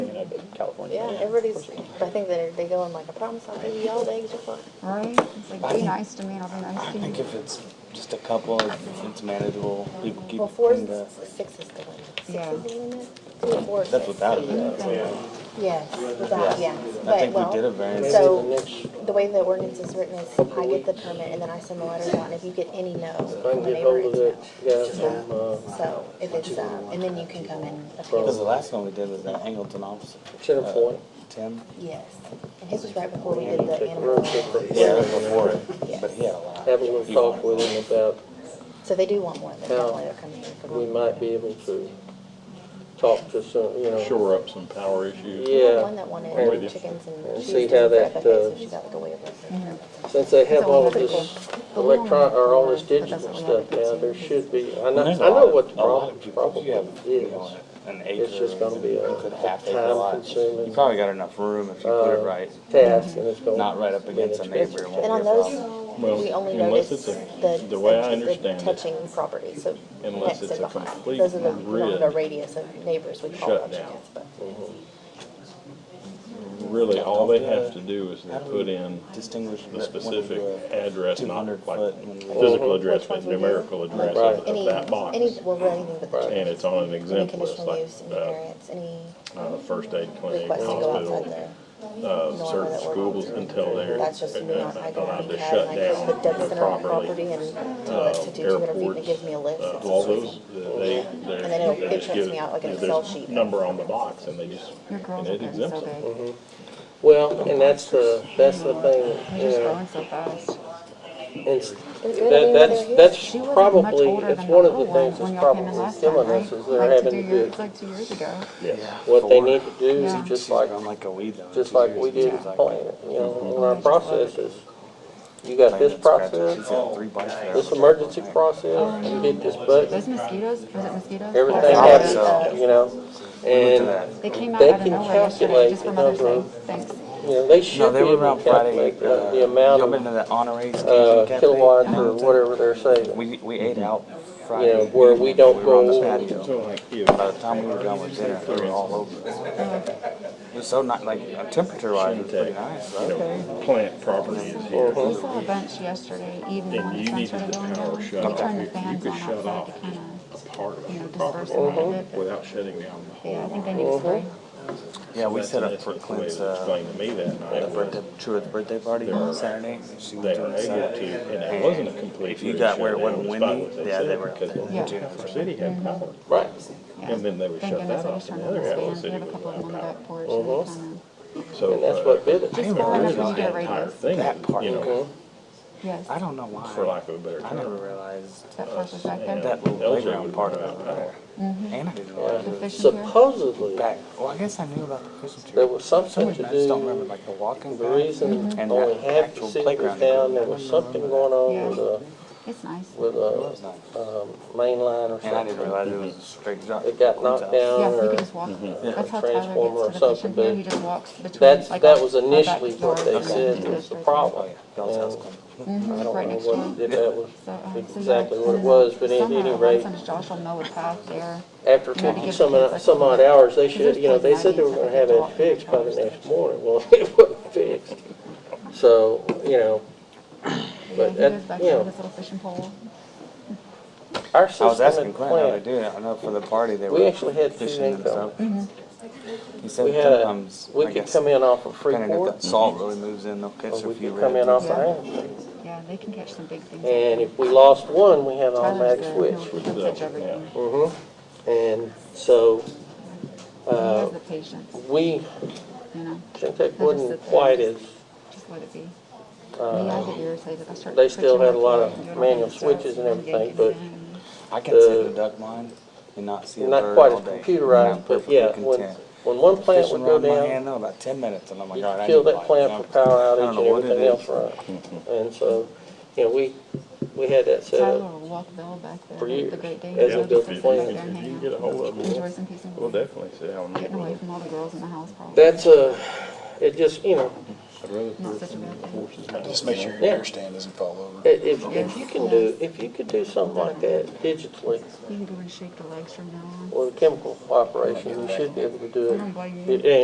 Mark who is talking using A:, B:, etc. A: California.
B: Yeah, everybody's, I think they're, they go in like, I promise I'll give you all the eggs you want.
C: Right? It's like, be nice to me and I'll be
A: I
C: nice to
A: think
C: you.
A: if it's just a couple, if it's manageable, people keep.
B: Well, four
A: in the-
B: is, six is the limit. Six
C: Yeah.
B: is the limit? Two or four is
A: That's
B: six.
A: without it. though.
B: Yes, without, yeah.
A: I
B: But,
A: think we
B: well,
A: did a variance.
B: So, the way the ordinance is written is, I get the permit and then I send the letters out, and if you get any no
D: I
B: from
D: can
B: the
D: get
B: neighbor,
D: hold of
B: it's
D: that
B: no.
D: guy from, uh,
B: So, if it's, um, and then you can come and
A: Because the
B: appeal.
A: last one we did was that Angleton officer.
D: Tim
A: uh,
D: Floyd.
A: Tim.
B: Yes, and his was right before we did the
D: Take a run, check
B: animal.
D: for-
A: Yeah, that was before it,
B: Yes.
A: but he had a lot.
D: Have a little
A: He wanted
D: talk with
A: one.
D: him about,
B: So they do want one, but definitely they're coming here for
D: we
B: one.
D: might be able to talk to some, you know.
E: shore up some power issues.
D: Yeah.
B: One that
D: I'm with you.
B: wanted chickens and.
D: And
B: she
D: see
B: was doing
D: how that,
B: breakfast, so
D: uh,
B: She got like a waiver.
D: Since they have all of this
C: The long
D: electron, or all this
C: one, but
D: digital
C: that's what
D: stuff
C: we have
D: now,
C: to
D: there
C: do.
D: should be, I know,
A: And
D: I
A: there's a
D: know
A: lot of-
D: what the
A: a lot
D: problem,
A: of people,
D: problem
A: if you have, you
D: is.
A: know, An acre.
D: just gonna be a
A: you could half acre
D: time
A: lot.
D: consuming,
A: You probably got enough room if you put it
D: uh,
A: right,
D: Task and it's going.
A: not right up against a neighbor. it
B: And
A: won't be
B: on
A: a problem.
B: those,
E: Well,
B: we only
E: unless
B: notice
E: it's a-
B: the,
E: the way I
B: the
E: understand it,
B: touching property, so
E: unless
B: next
E: it's
B: to
E: a
B: behind.
E: complete
B: Those are the, we don't have a
E: grid
B: radius of neighbors we call them
E: shutdown.
B: chickens, but.
E: Really, all they have to do is they put in
A: Distinguish.
E: the specific address, not like
A: 200 foot.
E: physical address,
B: Which
E: but
B: ones we do?
E: numerical address
D: Right.
E: of
B: Any,
E: of that box.
B: any, well, really anything but the
E: And
B: chickens,
E: it's on an
B: any
E: exempt list,
B: conditional
E: like,
B: use, any
E: uh,
B: variance, any
E: uh, first aid clinic,
B: request to go outside
E: hospital,
B: there.
E: uh, certain schools until they're
B: That's just me,
E: uh,
B: I go on
E: allowed to
B: because I
E: shut
B: just
E: down
B: hooked up center on
E: properly.
B: property and tell it
E: Uh,
B: to do two hundred feet and it gives
E: airports,
B: me a list.
E: uh,
B: It's
E: all
B: just
E: those, they, they're.
B: then it'll-
E: they
B: it
E: just
B: prints
E: give-
B: me out like an
E: there's
B: Excel sheet.
E: Number on the box and they just,
C: Your
E: and
C: girls are
E: it
C: getting so
E: exempts it.
C: big.
D: Well, and that's the, that's the thing,
C: They're
D: you
C: just
D: know.
C: growing so fast.
D: It's,
B: They're good,
D: that,
B: I mean,
D: that's,
B: they're
D: that's
C: She wasn't much
D: probably,
C: older
D: it's
C: than the
D: one of the
C: little ones
D: things
C: when
D: that's
C: y'all came in
D: probably
C: last time,
D: killing us
C: right?
D: is they're
C: Like two
D: having to
C: years-
D: do,
C: Like two years ago.
E: Yeah.
D: what they need to do
C: Yeah.
D: is just
A: Like,
D: like,
A: I'm like a weed though.
D: just
A: Two
D: like
A: years
D: we
A: is
D: did
A: just like
D: plant,
A: that.
D: you know, in our processes. You got
A: Plant
D: this
A: and scratch it. She's
D: process,
A: got three bites there.
D: this emergency process, you hit this button,
C: Those mosquitoes, was it mosquitoes?
D: everything
C: That's-
D: happens, you know? And,
C: They came out
D: They
C: out of
D: can
C: nowhere yesterday, just
D: calculate
C: from
D: the
C: Mother's Day. Thanks.
D: number you know, they should
A: No,
D: be
A: they were
D: able
A: around
D: to calculate
A: Friday.
D: the
A: uh,
D: the amount
A: Jump into
D: of,
A: that honorees.
D: uh,
A: cafe.
D: kilowatts or whatever they're saving.
A: We, we ate out
D: You know,
A: Friday.
D: where we don't
A: We were on the
D: go,
A: patio.
E: So like, if
A: By the time we were done with dinner, we were all over. It was so nice, like temperature wise, it was pretty nice.
E: you know, plant property is here.
D: Uh-huh.
C: We saw a bunch yesterday evening
E: Then
C: when the
E: you
C: sun
E: needed
C: started
E: the
C: going
E: power
C: down.
E: shut
C: You
E: off.
C: turned
E: You-
C: the
E: you
C: fans
E: could
C: on
E: shut
C: outside
E: off
C: to kind of,
E: part of
C: you know,
E: your
C: disperse
E: property
C: them a little bit.
E: without shutting down the
C: but Yeah, I
E: whole.
C: think they need to
D: Mm-hmm.
C: spray.
A: Yeah, Oh, we set up
E: That's
A: for
E: the way
A: Clint's,
E: they
A: uh,
E: explained to me that
A: the
E: night was
A: birthday, Truett's birthday party on Saturday. She
E: they
A: went to
E: were
A: the
E: able
A: Saturday.
E: to, and it wasn't a complete.
A: If you got where it wasn't
E: shutdown, despite
A: windy,
E: what
A: yeah,
E: said,
A: they were out
E: Because
A: there.
E: the Jennifer City had power.
D: right,
C: Yeah.
E: And then they would
C: Thank
E: shut
C: goodness
E: that
C: I
E: off
C: just
E: and
C: turned
E: the
C: on
E: other
C: the
E: outlets
C: fans. We
E: didn't
C: have
E: get
C: a couple of
E: no
C: them on the
E: power.
C: back porch. and they
D: Mm-hmm.
C: kinda-
E: So.
D: and that's
E: uh,
D: what did it.
C: Just
A: didn't
C: small enough
A: realize
C: when you do a
E: The entire
C: radius.
E: thing,
A: That part.
E: you
D: Mm-hmm.
E: know,
C: Yes,
A: I don't know why.
E: for lack of a better
A: I never
E: term.
A: realized
C: that flush was back there.
A: that little
E: Those are-
A: playground part of it. there. And I didn't realize
C: The
A: it was
C: fishing pier.
D: Supposedly,
A: back. Well, I guess I knew about the Christmas tree.
D: there was
A: For some
D: something
A: reason,
D: to
A: I just don't remember
D: do,
A: like the walking
D: the
A: path.
D: reason
A: And
D: only
A: that
D: half the
A: actual
D: city
A: playground.
D: was down, there was something going on with a,
C: It's nice.
D: with
A: It was
D: a,
A: nice.
D: um, main line or
A: And I didn't
D: something.
A: realize it was a straight drop.
D: It got knocked down
C: Yeah, you
D: or,
C: can just walk. That's how
D: Transformer
C: Tyler
D: or
C: gets to the fishing
D: something,
C: pier.
D: but
C: He just walks between.
D: Mm-hmm. that's,
C: like,
D: that was
C: our
D: initially what
C: backyard
D: they
C: and
D: said
C: into
D: was the
C: street.
A: Oh,
D: problem.
A: yeah. Y'all's house
D: And-
A: come.
D: I
C: Mhm,
D: don't
C: Mm-hmm. right
D: know
C: next to him.
D: what, if that was
C: So, um, so yeah,
D: exactly
C: and
D: what it
C: then
D: was, but at any
C: somehow
D: rate,
C: sometimes Josh will mow a path there.
D: after
C: Trying to
D: fifty
C: get
D: some,
C: the
D: odd-
C: kids, like,
D: some odd hours, they should, you know, they
C: there's
D: said they were
C: like
D: gonna have it
C: nineties,
D: fixed by the
C: like,
D: next morning, well, it wasn't fixed. So, you know,
C: Yeah,
D: but
C: he
D: that-
C: goes back
D: you
C: there
D: know.
C: with his little fishing pole.
D: our
A: I was
D: system
A: asking
D: at
A: Clint how they
D: plant,
A: do it. I know for the party they were.
D: we actually had food
A: fishing and
D: income.
A: stuff. He said
D: We had a,
A: sometimes,
D: we
A: I
D: could
A: guess,
D: come in off of
A: depending if
D: Freeport,
A: that salt really moves in, they'll catch
D: or
A: a
D: we
A: few
D: could come in
A: red.
D: off
C: Yeah.
D: of Anderson.
C: Yeah, they can catch some big things.
D: And uh, if we lost one, we had an
C: Tyler's
D: automatic
C: there,
D: switch.
C: he'll- he'll catch everything. He
D: hmm And so, Uh,
C: has the patience,
D: we,
C: you know,
D: Shintech
C: They'll just
D: wasn't
C: sit there.
D: quite as,
C: just let it be. Me, I get irritated. I start
D: uh, they still
C: switching
D: had a lot
C: off
D: of
C: and doing all
D: manual
C: kinds of stuff,
D: switches and everything,
C: yanking
D: but
C: things.
A: I can sit in the duck line and not see a
D: not
A: bird
D: quite
A: all
D: as
A: day.
D: computerized,
A: I'm
D: but
A: perfectly
D: yeah, when,
A: content.
D: when one plant would
A: Fishing
D: go
A: around my hand
D: down,
A: though, about ten minutes, and I'm like,
D: you
A: all right, I
D: could
A: need
D: kill
A: light."
D: that plant for power
A: I
D: outage
A: don't
D: and
A: know what it
D: everything else
A: is.
D: run. And so, you know, we, we had that set
C: Tyler
D: up.
C: will walk Bill back there.
D: For
C: The
D: years,
C: great day.
D: as
C: He'll
D: a
C: just
D: different
C: sit back
D: plan.
C: there and
E: If you
C: hang
E: can get a
C: out.
E: hold of
C: Enjoy
E: them,
C: some peace and
E: we'll
C: quiet.
E: definitely sit down. and meet
C: Getting away
E: with them.
C: from all the girls in the house probably.
D: That's a, it just, you know,
E: I'd rather
C: Not
E: put
C: such a
E: some
C: bad thing.
E: horses back.
F: Just make sure
D: Yeah.
F: your air stand doesn't fall over.
D: i- if, if you can do, if you could do something like that digitally
C: You can go and shake the legs from now on.
D: or the chemical operation, you should be able to do
C: I don't blame you.
D: it. And